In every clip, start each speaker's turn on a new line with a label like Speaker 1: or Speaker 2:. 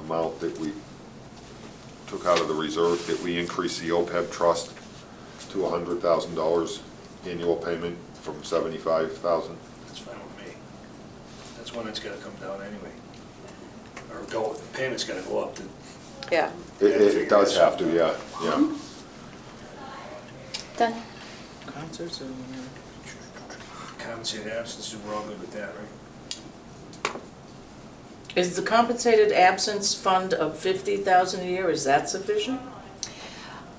Speaker 1: amount that we took out of the reserve, that we increase the OPEB trust to hundred thousand dollars annual payment from seventy-five thousand.
Speaker 2: That's fine with me. That's one that's gotta come down anyway. Or go, the payment's gotta go up to,
Speaker 3: Yeah,
Speaker 1: It, it does have to, yeah, yeah.
Speaker 4: Done.
Speaker 5: Concerts or?
Speaker 2: compensate absences, we're all good with that, right?
Speaker 5: Is the compensated absence fund of fifty thousand a year, is that sufficient?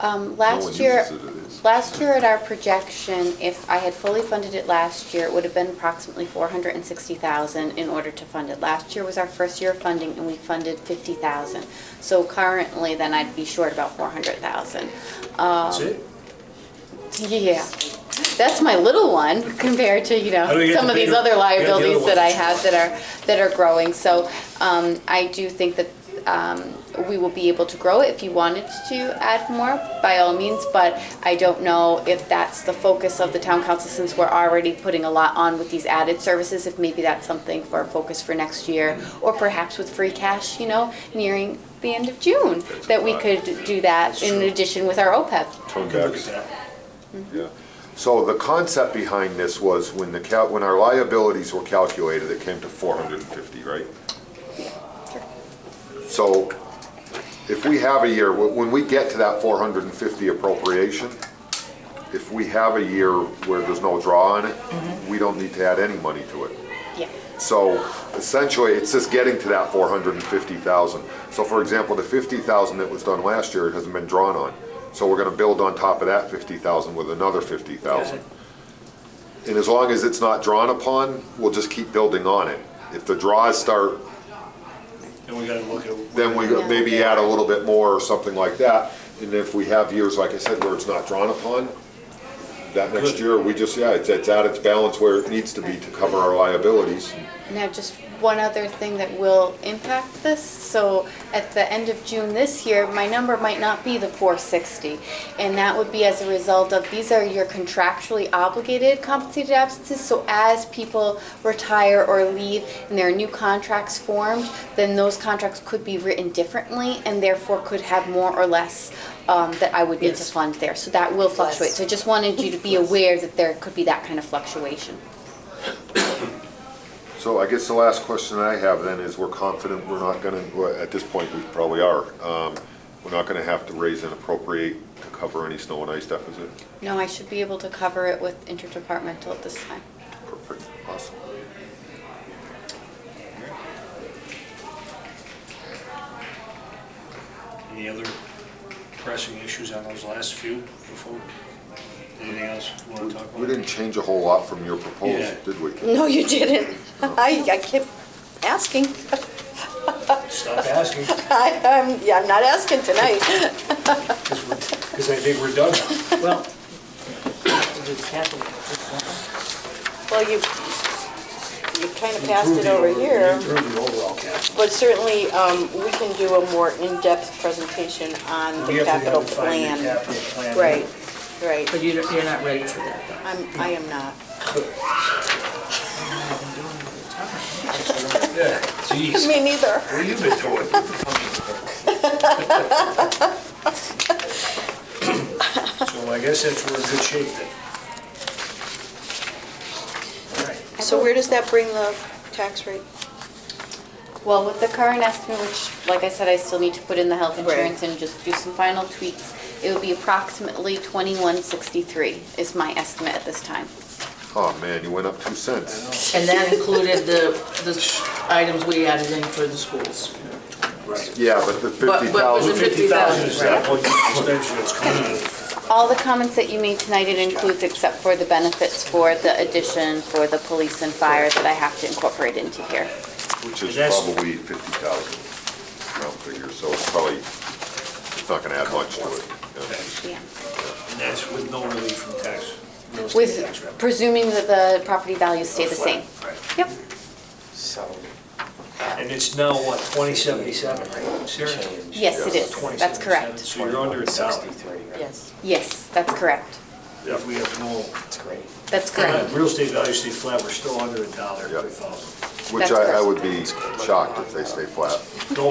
Speaker 4: Um,
Speaker 1: No one
Speaker 4: last year,
Speaker 1: uses it, it is.
Speaker 4: last year at our projection, if I had fully funded it last year, it would have been approximately four hundred and sixty thousand in order to fund it. Last year was our first year of funding and we funded fifty thousand. So currently, then I'd be short about four hundred thousand.
Speaker 2: That's it?
Speaker 4: Yeah, that's my little one compared to, you
Speaker 2: How do we
Speaker 4: know,
Speaker 2: get
Speaker 4: some
Speaker 2: the
Speaker 4: of these
Speaker 2: bigger-
Speaker 4: other
Speaker 2: we Oh, got the other
Speaker 4: liabilities that I
Speaker 2: ones.
Speaker 4: have that are, that are growing. So um, I do think that um, we will be able to grow it if you wanted to add more, by all means. But I don't know if that's the focus of the town council, since we're already putting a lot on with these added services, if maybe that's something for focus for next year, or perhaps with free cash, you know, nearing the end of June,
Speaker 1: That's
Speaker 4: that we
Speaker 1: right.
Speaker 4: could do that in addition with our E OPEB.
Speaker 1: Turn
Speaker 2: We can look
Speaker 1: back.
Speaker 2: at that.
Speaker 1: Yeah. So the concept behind this was when the cal, when our liabilities were calculated, it came to four hundred and fifty, right? So if we have a year, wh- when we get to that four hundred and fifty appropriation, if we have a year where there's no draw on it, we don't need to add any money to it.
Speaker 4: Yeah.
Speaker 1: So essentially, it's just getting to that four hundred and fifty thousand. So for example, the fifty thousand that was done last year hasn't been drawn on. So we're gonna build on top of that fifty thousand with another fifty thousand. And as long as it's not drawn upon, we'll just keep building on it. If the draws start,
Speaker 2: Then we gotta look at.
Speaker 1: then we maybe add a little bit more or something like that. And if we have years, like I said, where it's not drawn upon, that next
Speaker 2: Good.
Speaker 1: year, we just, yeah, it's, it's at its balance where it needs to be to cover our liabilities.
Speaker 4: Now, just one other thing that will impact this. So at the end of June this year, my number might not be the 460. And that would be as a result of, these are your contractually obligated compensated absences. So as people retire or leave and there are new contracts formed, then those contracts could be written differently and therefore could have more or less um, that I would need to
Speaker 5: Yes.
Speaker 4: fund there. So that will fluctuate. So I just wanted you to be aware that there could be that kind of fluctuation.
Speaker 1: So I guess the last question I have then is, we're confident we're not gonna, well, at this point, we probably are, um, we're not gonna have to raise and appropriate to cover any snow and ice deficit?
Speaker 4: No, I should be able to cover it with interdepartmental at this time.
Speaker 1: Perfect, awesome.
Speaker 2: Any other pressing issues on those last few before? Anything else you wanna talk about?
Speaker 1: We didn't change a whole lot from your
Speaker 2: Yeah.
Speaker 1: proposal, did we?
Speaker 3: no, you didn't. I, I kept asking.
Speaker 2: Stop asking,
Speaker 3: I, I'm, yeah, I'm not asking tonight.
Speaker 2: because I think we're done.
Speaker 5: Well, the capital, that's not-
Speaker 3: Well, you, you kind of passed it over here,
Speaker 2: Improve the overall capital.
Speaker 3: but certainly, um, we can do a more in-depth presentation on
Speaker 2: We have
Speaker 3: the
Speaker 2: to have
Speaker 3: capital
Speaker 2: a five-year
Speaker 3: plan.
Speaker 2: capital plan.
Speaker 3: Right, right.
Speaker 5: But you don't- you're not ready for that, though.
Speaker 3: I'm, I am not.
Speaker 2: Yeah, Jeez,
Speaker 3: Me neither.
Speaker 2: what have you been doing? So I guess that's we're in good shape then. All right.
Speaker 3: So where does that bring the tax rate?
Speaker 4: Well, with the current estimate, which, like I said, I still need to put in the health
Speaker 3: Right.
Speaker 4: insurance and just do some final tweaks, it would be approximately twenty-one sixty-three is my estimate at this time.
Speaker 1: Oh, man, you went up two cents.
Speaker 5: And that included the, the items we added in for the schools.
Speaker 1: Yeah, but the
Speaker 5: but
Speaker 1: fifty
Speaker 5: was
Speaker 1: thousand,
Speaker 5: it-
Speaker 2: Fifty thousand is that
Speaker 5: Right.
Speaker 2: what the expenditure that's coming in?
Speaker 4: All the comments that you made tonight, it includes except for the benefits for the addition for the police and fire that I have to incorporate into here.
Speaker 1: which is
Speaker 2: That's-
Speaker 1: probably fifty thousand round figure, so it's probably, it's not gonna add much to it. yeah.
Speaker 4: Yeah.
Speaker 2: And that's with no relief from tax, real estate tax
Speaker 4: With,
Speaker 2: revenue.
Speaker 4: presuming that the property values stay the same.
Speaker 2: Right.
Speaker 4: Yep.
Speaker 6: So,
Speaker 2: And it's now what, twenty seventy-seven, right? Sarah?
Speaker 6: change.
Speaker 4: Yes, it is. That's
Speaker 2: 2077.
Speaker 4: correct.
Speaker 2: So you're under a dollar,
Speaker 6: 63, right?
Speaker 3: Yes.
Speaker 4: Yes, that's correct.
Speaker 2: if we have no,
Speaker 6: That's great.
Speaker 4: That's
Speaker 2: uh,
Speaker 4: correct.
Speaker 2: real estate value stay flat, we're still under a dollar per
Speaker 1: Yep.
Speaker 2: thousand.
Speaker 1: Which I, I would be shocked if they stay flat.